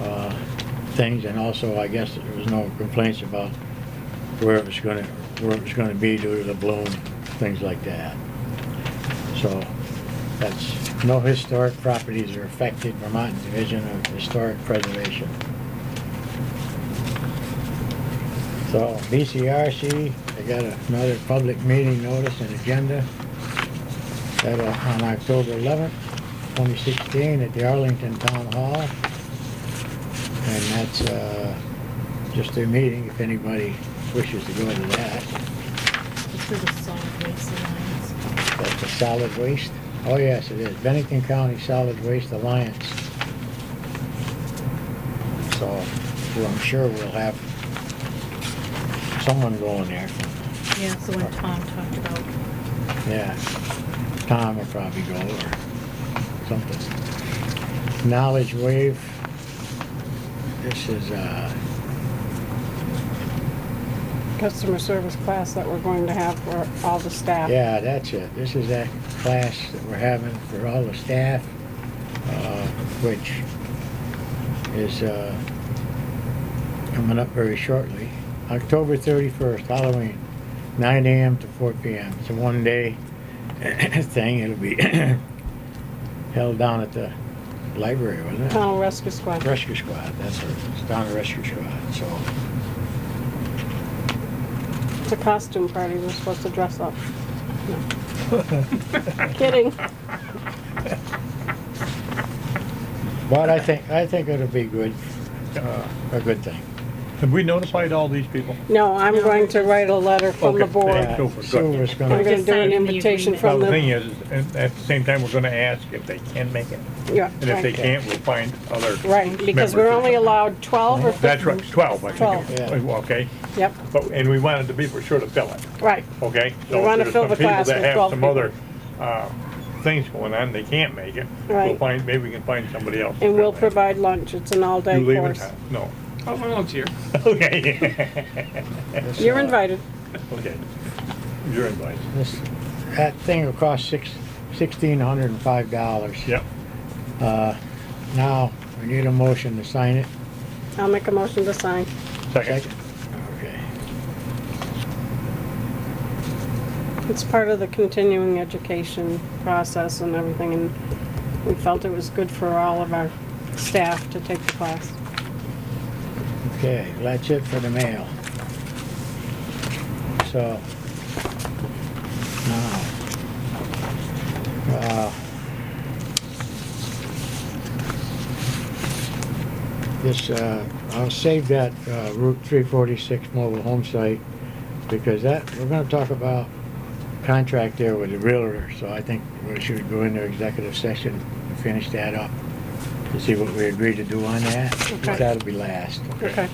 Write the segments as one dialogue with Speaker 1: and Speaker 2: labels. Speaker 1: uh, things, and also, I guess, there was no complaints about where it was gonna, where it was gonna be due to the bloom, things like that. So, that's, no historic properties are affected, Vermont Division of Historic Preservation. So, BCRC, they got another public meeting notice and agenda. That'll, on October eleventh, twenty sixteen, at the Arlington Town Hall. And that's, uh, just their meeting, if anybody wishes to go to that.
Speaker 2: It's for the solid waste alliance.
Speaker 1: That's the solid waste. Oh, yes, it is. Bennington County Solid Waste Alliance. So, well, I'm sure we'll have someone going there.
Speaker 2: Yeah, so when Tom talked about,
Speaker 1: Yeah. Tom will probably go or something. Knowledge Wave. This is, uh,
Speaker 3: customer service class that we're going to have for all the staff.
Speaker 1: Yeah, that's it. This is that class that we're having for all the staff, uh, which is uh, coming up very shortly. October 31st, Halloween, 9 AM to 4 PM. It's a one-day thing. It'll be held down at the library, wasn't it?
Speaker 3: Tunnel Rescue Squad.
Speaker 1: Rescue Squad, that's it. It's down at Rescue Squad, so.
Speaker 3: It's a costume party. We're supposed to dress up. Kidding.
Speaker 1: But I think, I think it'll be good, uh, a good thing.
Speaker 4: Have we notified all these people?
Speaker 3: No, I'm going to write a letter from the
Speaker 4: Okay,
Speaker 3: board.
Speaker 4: thank
Speaker 1: Yeah,
Speaker 4: you. Good.
Speaker 1: Silver's
Speaker 3: I'm
Speaker 1: gonna,
Speaker 3: gonna do an invitation
Speaker 4: Well,
Speaker 3: from
Speaker 4: the thing
Speaker 3: the,
Speaker 4: is, is at at the same time, we're gonna ask if they can make it.
Speaker 3: yeah.
Speaker 4: And if they
Speaker 3: right.
Speaker 4: can't, we'll find other.
Speaker 3: Right, because we're
Speaker 4: members.
Speaker 3: only allowed twelve or fifteen.
Speaker 4: That's right, twelve, I think. it
Speaker 1: Twelve.
Speaker 4: was. Okay,
Speaker 3: Yep,
Speaker 4: but, and we wanted to be for sure to fill it,
Speaker 3: right.
Speaker 4: okay?
Speaker 3: We wanna fill the class with 12
Speaker 4: So if
Speaker 3: people.
Speaker 4: there's some people that have some other, uh, things going on, they can't make it. We'll
Speaker 3: Right.
Speaker 4: find, maybe we can find somebody else. to
Speaker 3: And we'll
Speaker 4: fill that.
Speaker 3: provide lunch. It's an all-day
Speaker 4: You leaving
Speaker 3: course.
Speaker 4: town? No.
Speaker 5: I'll volunteer.
Speaker 4: Okay.
Speaker 3: You're invited.
Speaker 4: Okay. You're invited.
Speaker 1: this, that thing will cost six, sixteen hundred and five dollars.
Speaker 4: Yep.
Speaker 1: Uh, now, we need a motion to sign it.
Speaker 3: I'll make a motion to sign.
Speaker 4: Second.
Speaker 1: Okay.
Speaker 3: It's part of the continuing education process and everything, and we felt it was good for all of our staff to take the class.
Speaker 1: Okay, that's it for the mail. So, now, uh, this, uh, I'll save that uh, Route 346 mobile home site because that, we're gonna talk about contract there with the realtor, so I think we should go into executive session and finish that up to see what we agreed to do on that.
Speaker 3: Okay.
Speaker 1: That'll be last.
Speaker 3: Okay.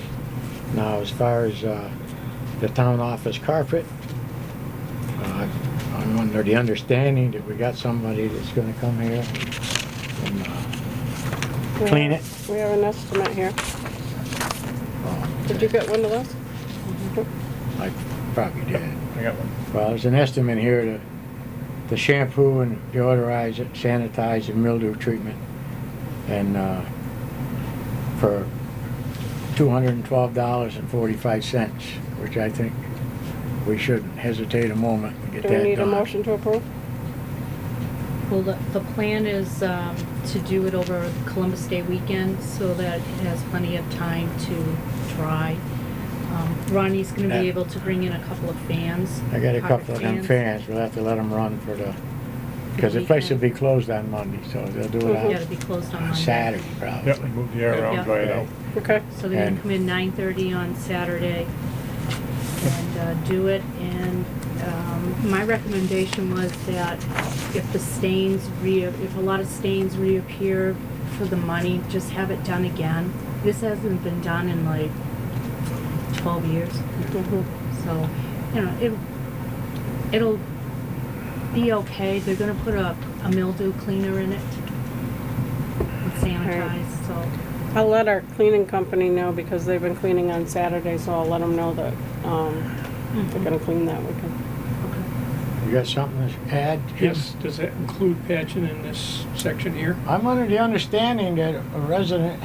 Speaker 1: Now, as far as uh, the town office carpet, uh, I'm under the understanding that we got somebody that's gonna come here and uh, clean it.
Speaker 3: We have an estimate here. Did you get one of those?
Speaker 1: I probably did.
Speaker 4: I got one.
Speaker 1: Well, there's an estimate here to, to shampoo and deodorize it, sanitize and mildew treatment. And, uh, for two hundred and twelve dollars and forty-five cents, which I think we shouldn't hesitate a moment and get
Speaker 3: Do
Speaker 1: that
Speaker 3: we
Speaker 1: done.
Speaker 3: need a motion to approve?
Speaker 2: well, the, the plan is, um, to do it over Columbus Day weekend so that it has plenty of time to dry. Um, Ronnie's gonna be
Speaker 1: Yeah.
Speaker 2: able to bring in a couple of fans.
Speaker 1: I got a
Speaker 2: carpet
Speaker 1: couple of them fans, we'll have to let them run for the, because the place will be closed on Monday, so they'll do
Speaker 3: Mhm.
Speaker 2: Yeah, it'll be
Speaker 1: it
Speaker 2: closed on
Speaker 1: on- on
Speaker 2: Monday.
Speaker 1: Saturday probably.
Speaker 4: Yep, move the air around, dry it out.
Speaker 3: Okay.
Speaker 2: So they're
Speaker 1: And-
Speaker 2: gonna come in nine thirty on Saturday and uh, do it, and, um, my recommendation was that if the stains re, if a lot of stains reappear for the money, just have it done again. This hasn't been done in like twelve years,
Speaker 3: Mhm.
Speaker 2: so, you know, it, it'll be okay. They're gonna put a, a mildew cleaner in it and sanitize, so.
Speaker 3: I'll let our cleaning company know because they've been cleaning on Saturday, so I'll let them know that, um, they're gonna clean that weekend.
Speaker 2: Mm-hmm. Okay.
Speaker 1: You got something to add? Jim?
Speaker 5: Yes, does that include patching in this section here?
Speaker 1: I'm under the understanding that a resident